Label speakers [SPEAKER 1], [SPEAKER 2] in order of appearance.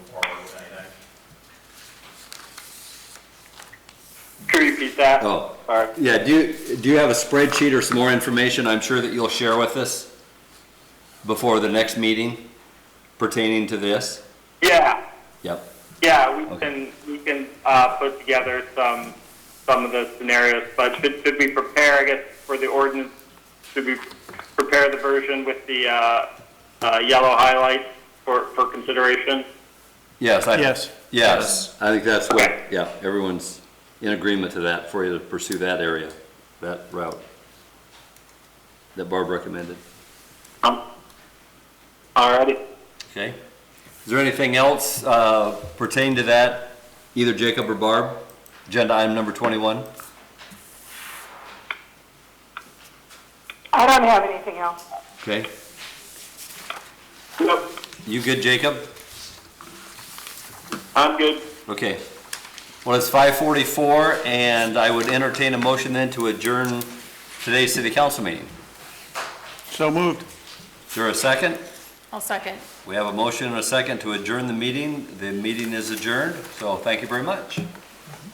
[SPEAKER 1] repeat that?
[SPEAKER 2] Oh.
[SPEAKER 1] Sorry.
[SPEAKER 2] Yeah, do you, do you have a spreadsheet or some more information I'm sure that you'll share with us before the next meeting pertaining to this?
[SPEAKER 1] Yeah,
[SPEAKER 2] Yep,
[SPEAKER 1] yeah, we
[SPEAKER 2] Okay.
[SPEAKER 1] can, we can, uh, put together some, some of the scenarios, but should, should we prepare, I guess, for the ordinance? Should we prepare the version with the, uh, uh, yellow highlights for, for consideration?
[SPEAKER 2] yes, I.
[SPEAKER 3] Yes.
[SPEAKER 2] Yes, I think that's what,
[SPEAKER 1] Okay.
[SPEAKER 2] yeah, everyone's in agreement to that, for you to pursue that area, that route that Barb recommended.
[SPEAKER 1] Um, alrighty.
[SPEAKER 2] Okay. Is there anything else uh, pertaining to that, either Jacob or Barb? Agenda item number 21?
[SPEAKER 4] I don't have anything else.
[SPEAKER 2] Okay.
[SPEAKER 1] Nope,
[SPEAKER 2] You good, Jacob?
[SPEAKER 1] I'm good.
[SPEAKER 2] Okay. Well, it's 5:44, and I would entertain a motion then to adjourn today's city council meeting.
[SPEAKER 3] So moved.
[SPEAKER 2] Is there a second?
[SPEAKER 5] I'll second.
[SPEAKER 2] We have a motion and a second to adjourn the meeting. The meeting is adjourned, so thank you very much.